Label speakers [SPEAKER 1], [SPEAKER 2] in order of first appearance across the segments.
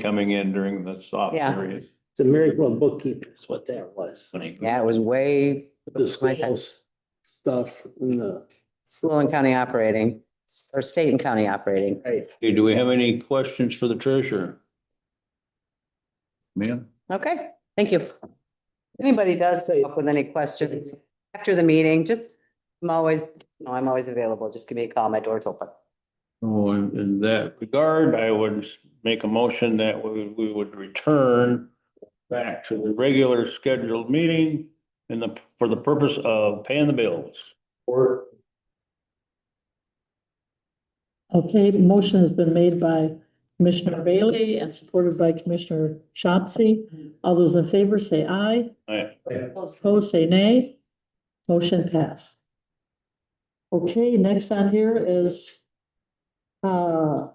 [SPEAKER 1] coming in during the soft
[SPEAKER 2] Yeah.
[SPEAKER 1] period.
[SPEAKER 3] It's a miracle of bookkeeping is what that was.
[SPEAKER 2] Yeah, it was way
[SPEAKER 3] The
[SPEAKER 2] My time.
[SPEAKER 3] schools stuff and the.
[SPEAKER 2] school and county operating, or state and county operating.
[SPEAKER 3] Right.
[SPEAKER 1] Okay, do we have any questions for the treasurer? Ma'am?
[SPEAKER 2] Okay, thank you. Anybody does come up with any questions after the meeting, just, I'm always, no, I'm always available. Just give me a call. My door's open.
[SPEAKER 1] Oh, in in that regard, I would make a motion that we, we would return back to the regular scheduled meeting in the, for the purpose of paying the bills.
[SPEAKER 3] Or
[SPEAKER 4] Okay, motion has been made by Commissioner Bailey and supported by Commissioner Shopsy. All those in favor say aye.
[SPEAKER 1] Alright,
[SPEAKER 4] Those Opposed, say nay. Motion pass. Okay, next on here is uh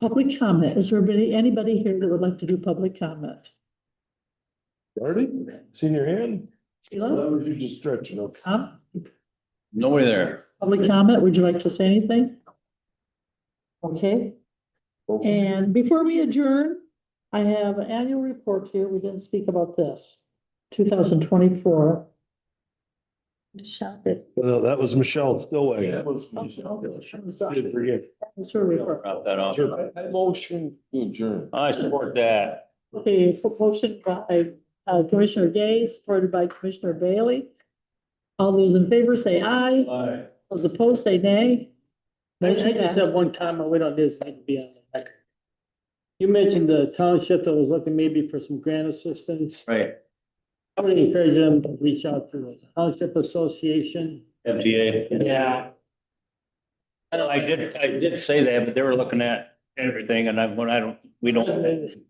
[SPEAKER 4] public comment. Is there anybody, anybody here that would like to do public comment?
[SPEAKER 5] Marty, seen your hand?
[SPEAKER 4] Sheila,
[SPEAKER 5] was you just stretching up.
[SPEAKER 4] Tom,
[SPEAKER 1] nobody there.
[SPEAKER 4] public comment, would you like to say anything? Okay.
[SPEAKER 3] Uh,
[SPEAKER 4] And before we adjourn, I have an annual report here. We didn't speak about this. Two thousand twenty-four. Michelle.
[SPEAKER 5] Well, that was Michelle Stillwagon. Did
[SPEAKER 4] uh, It's
[SPEAKER 5] forget.
[SPEAKER 4] her report.
[SPEAKER 1] Drop that off.
[SPEAKER 5] Motion adjourned.
[SPEAKER 1] I support that.
[SPEAKER 4] Okay, so motion by uh, Commissioner Day, supported by Commissioner Bailey. All those in favor say aye.
[SPEAKER 5] Aye.
[SPEAKER 4] Those opposed say nay.
[SPEAKER 6] I I just have one comment, we don't, this need to be on the record. You mentioned the township that was looking maybe for some grant assistance.
[SPEAKER 1] Right.
[SPEAKER 6] I would encourage them to reach out to the Township Association.
[SPEAKER 1] MTA. I know, I did, I did say that, but they were looking at everything and I, when I don't, we don't,